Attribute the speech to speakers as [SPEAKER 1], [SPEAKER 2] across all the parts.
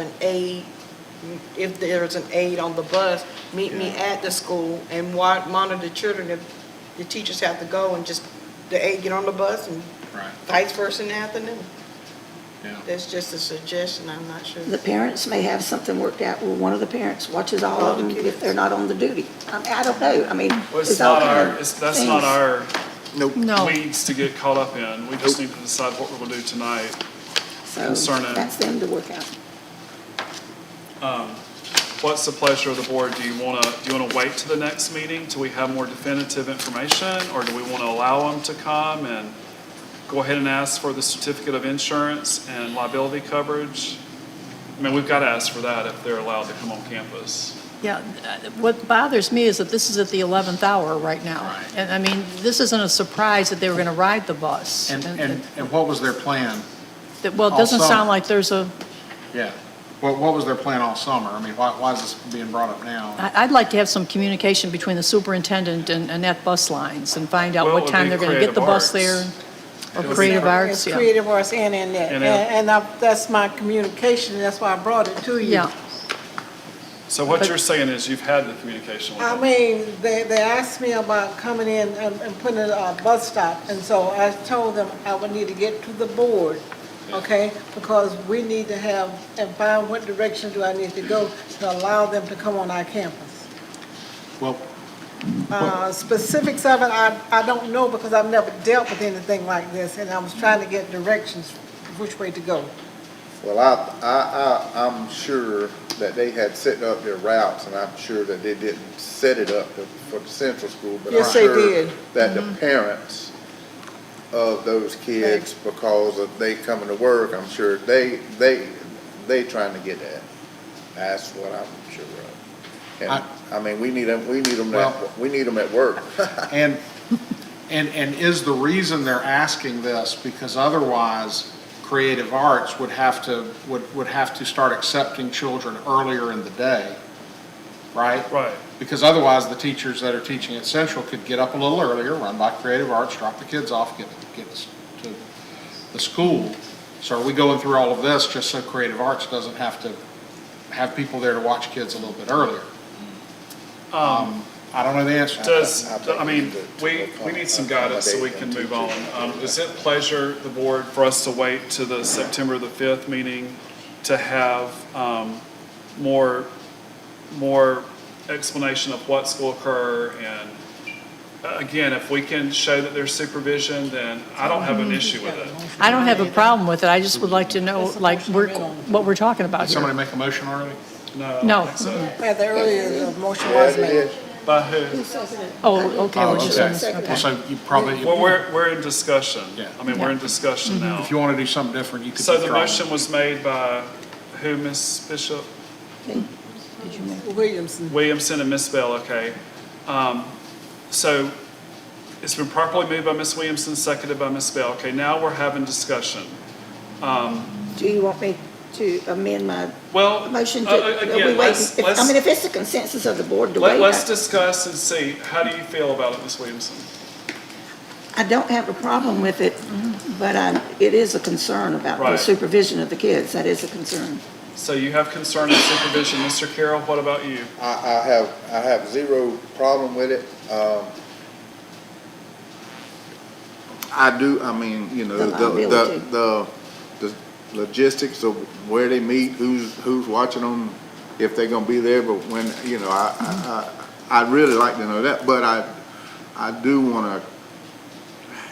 [SPEAKER 1] an aide, if there's an aide on the bus, meet me at the school and wa- monitor the children if the teachers have to go and just, the aide get on the bus and
[SPEAKER 2] Right,
[SPEAKER 1] vice versa in the afternoon.
[SPEAKER 2] yeah.
[SPEAKER 1] That's just a suggestion, I'm not sure.
[SPEAKER 3] The parents may have something worked out where one of the parents watches all of them if they're not on the duty. I mean, I don't know, I mean.
[SPEAKER 2] Well, it's
[SPEAKER 3] there's all
[SPEAKER 2] not
[SPEAKER 3] kind
[SPEAKER 2] our,
[SPEAKER 3] of
[SPEAKER 2] it's, that's
[SPEAKER 3] things.
[SPEAKER 2] not our
[SPEAKER 4] Nope.
[SPEAKER 5] No,
[SPEAKER 2] weeds to get caught up in. We just need to decide what we're gonna do tonight.
[SPEAKER 3] So,
[SPEAKER 2] concerning-
[SPEAKER 3] That's them to work out.
[SPEAKER 2] What's the pleasure of the board? Do you wanna, do you wanna wait to the next meeting till we have more definitive information? Or do we wanna allow them to come and go ahead and ask for the certificate of insurance and liability coverage? I mean, we've gotta ask for that if they're allowed to come on campus.
[SPEAKER 5] yeah, uh, what bothers me is that this is at the 11th hour right now.
[SPEAKER 2] Right.
[SPEAKER 5] And I mean, this isn't a surprise that they were going to ride the bus.
[SPEAKER 4] And, and, and what was their plan?
[SPEAKER 5] that- Well, it doesn't
[SPEAKER 4] all summer.
[SPEAKER 5] sound like there's a,
[SPEAKER 4] Yeah. What, what was their plan all summer? I mean, why, why is this being brought up now?
[SPEAKER 5] I- I'd like to have some communication between the superintendent and and that bus lines and find out
[SPEAKER 2] Well,
[SPEAKER 5] what
[SPEAKER 2] it would
[SPEAKER 5] time
[SPEAKER 2] be
[SPEAKER 5] they're going to get the
[SPEAKER 2] Creative
[SPEAKER 5] bus
[SPEAKER 2] Arts.
[SPEAKER 5] there. Or
[SPEAKER 2] It would be
[SPEAKER 5] Creative
[SPEAKER 6] It's
[SPEAKER 5] Arts, yeah.
[SPEAKER 6] Creative Arts and in that.
[SPEAKER 2] And
[SPEAKER 6] And,
[SPEAKER 2] that.
[SPEAKER 6] and I- that's my communication, that's why I brought it to you.
[SPEAKER 5] Yeah,
[SPEAKER 2] So what
[SPEAKER 5] But-
[SPEAKER 2] you're saying is you've had the communication with
[SPEAKER 6] I
[SPEAKER 2] them.
[SPEAKER 6] mean, they, they asked me about coming in and, and putting a uh, bus stop, and so I told them I would need to get to the board, okay? Because we need to have, and find what direction do I need to go to allow them to come on our campus.
[SPEAKER 4] Well,
[SPEAKER 6] Uh, specifics of it, I, I don't know because I've never dealt with anything like this, and I was trying to get directions which way to go.
[SPEAKER 7] Well, I, I, I, I'm sure that they had set up their routes, and I'm sure that they didn't set it up to- for the central school, but I'm
[SPEAKER 6] Yes, they
[SPEAKER 7] sure
[SPEAKER 6] did. Mm-hmm.
[SPEAKER 7] that the parents of those kids, because of they coming to work, I'm sure they, they, they trying to get that. That's what I'm sure of.
[SPEAKER 4] I-
[SPEAKER 7] And, I mean, we need them, we need them,
[SPEAKER 4] Well-
[SPEAKER 7] at- we need them at work.
[SPEAKER 4] and, and, and is the reason they're asking this because otherwise Creative Arts would have to, would, would have to start accepting children earlier in the day, right?
[SPEAKER 2] Right.
[SPEAKER 4] Because otherwise, the teachers that are teaching at Central could get up a little earlier, run by Creative Arts, drop the kids off, get, get to the school. So are we going through all of this just so Creative Arts doesn't have to have people there to watch kids a little bit earlier? Um, I don't know the answer.
[SPEAKER 2] Does,
[SPEAKER 7] I
[SPEAKER 4] uh,
[SPEAKER 7] think
[SPEAKER 2] I mean,
[SPEAKER 7] we
[SPEAKER 2] we,
[SPEAKER 7] need to
[SPEAKER 2] we need some guidance so we can move
[SPEAKER 7] accommodate them
[SPEAKER 2] on. Um, Is it pleasure, the board, for us to wait to the September the 5th meeting to have um, more, more explanation of what's going to occur? And uh, again, if we can show that there's supervision, then I don't have an issue with it.
[SPEAKER 5] I don't have a problem with it. I just would like to know,
[SPEAKER 6] That's the
[SPEAKER 5] like,
[SPEAKER 6] motion
[SPEAKER 5] we're-
[SPEAKER 6] made on-
[SPEAKER 5] what we're talking about
[SPEAKER 4] Did somebody
[SPEAKER 5] here.
[SPEAKER 4] make a motion already?
[SPEAKER 2] No. I
[SPEAKER 5] No.
[SPEAKER 2] don't think so.
[SPEAKER 6] Yeah, the earlier, the motion
[SPEAKER 7] Yeah,
[SPEAKER 6] was
[SPEAKER 7] they
[SPEAKER 6] made.
[SPEAKER 7] did.
[SPEAKER 2] By who?
[SPEAKER 5] Oh, okay,
[SPEAKER 4] Oh,
[SPEAKER 5] we're just on
[SPEAKER 4] okay.
[SPEAKER 5] this,
[SPEAKER 4] Well,
[SPEAKER 5] okay.
[SPEAKER 4] so you probably,
[SPEAKER 2] Well, we're, we're in discussion.
[SPEAKER 4] Yeah.
[SPEAKER 2] I mean, we're in discussion now.
[SPEAKER 4] if you want to do something different, you could
[SPEAKER 2] So
[SPEAKER 4] withdraw.
[SPEAKER 2] the motion was made by who, Ms. Bishop?
[SPEAKER 6] Williamson.
[SPEAKER 2] Williamson and Miss Bell, okay. Um, So it's been properly moved by Miss Williamson, seconded by Miss Bell. Okay, now we're having discussion.
[SPEAKER 3] Do you want me to amend my
[SPEAKER 2] Well,
[SPEAKER 3] motion to?
[SPEAKER 2] uh,
[SPEAKER 3] are
[SPEAKER 2] uh,
[SPEAKER 3] we
[SPEAKER 2] again,
[SPEAKER 3] waiting?
[SPEAKER 2] let's,
[SPEAKER 3] If- I mean, if
[SPEAKER 2] let's,
[SPEAKER 3] it's the consensus of the board to
[SPEAKER 2] let-
[SPEAKER 3] wait, uh,
[SPEAKER 2] let's
[SPEAKER 3] I-
[SPEAKER 2] discuss and see. How do you feel about it, Miss Williamson?
[SPEAKER 3] I don't have a problem with it, but I, it is a concern about the
[SPEAKER 2] Right.
[SPEAKER 3] supervision of the kids. That is a concern.
[SPEAKER 2] So you have concern and supervision. Mr. Carroll, what about you?
[SPEAKER 7] I, I have, I have zero problem with it. Um, I do, I mean, you know,
[SPEAKER 3] The
[SPEAKER 7] the,
[SPEAKER 3] liability.
[SPEAKER 7] the, the, the logistics of where they meet, who's, who's watching them, if they're gonna be there, but when, you know, I, I, I- I'd really like to know that, but I, I do wanna,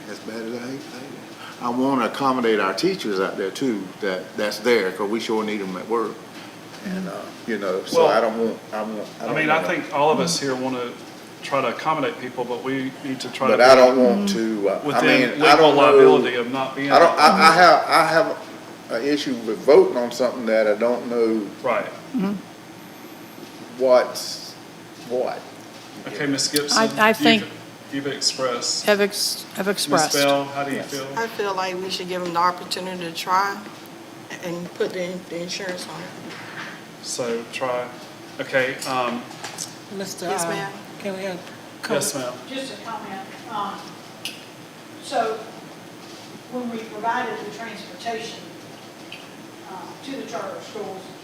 [SPEAKER 7] as bad as I hate to say it, I wanna accommodate our teachers out there too, that, that's there, cause we sure need them at work. And, uh, you know, so
[SPEAKER 2] Well-
[SPEAKER 7] I don't want, I want.
[SPEAKER 2] I
[SPEAKER 7] don't
[SPEAKER 2] mean, I
[SPEAKER 7] wanna-
[SPEAKER 2] think all of us here want to try to accommodate people, but we need to try to.
[SPEAKER 7] But I don't want to, uh,
[SPEAKER 2] be
[SPEAKER 7] I
[SPEAKER 2] Within
[SPEAKER 7] mean, I
[SPEAKER 2] legal
[SPEAKER 7] don't
[SPEAKER 2] liability
[SPEAKER 7] know.
[SPEAKER 2] of not being.
[SPEAKER 7] I don't, I, I have, I have an issue with voting on something that I don't know
[SPEAKER 2] Right.
[SPEAKER 7] what's what.
[SPEAKER 2] Okay, Miss Gibson.
[SPEAKER 5] I- I
[SPEAKER 2] you've-
[SPEAKER 5] think-
[SPEAKER 2] You've expressed.
[SPEAKER 5] Have ex- have
[SPEAKER 2] Ms.
[SPEAKER 5] expressed.
[SPEAKER 2] Bell, how do you feel?
[SPEAKER 1] I feel like we should give them the opportunity to try and put the, in- the insurance on it.
[SPEAKER 2] So try, okay, um,
[SPEAKER 6] Mr.
[SPEAKER 1] Yes,
[SPEAKER 6] uh,
[SPEAKER 1] ma'am.
[SPEAKER 6] Can we have?
[SPEAKER 2] yes, ma'am.
[SPEAKER 8] Just a comment. um, So when we provided the transportation uh, to the charter schools,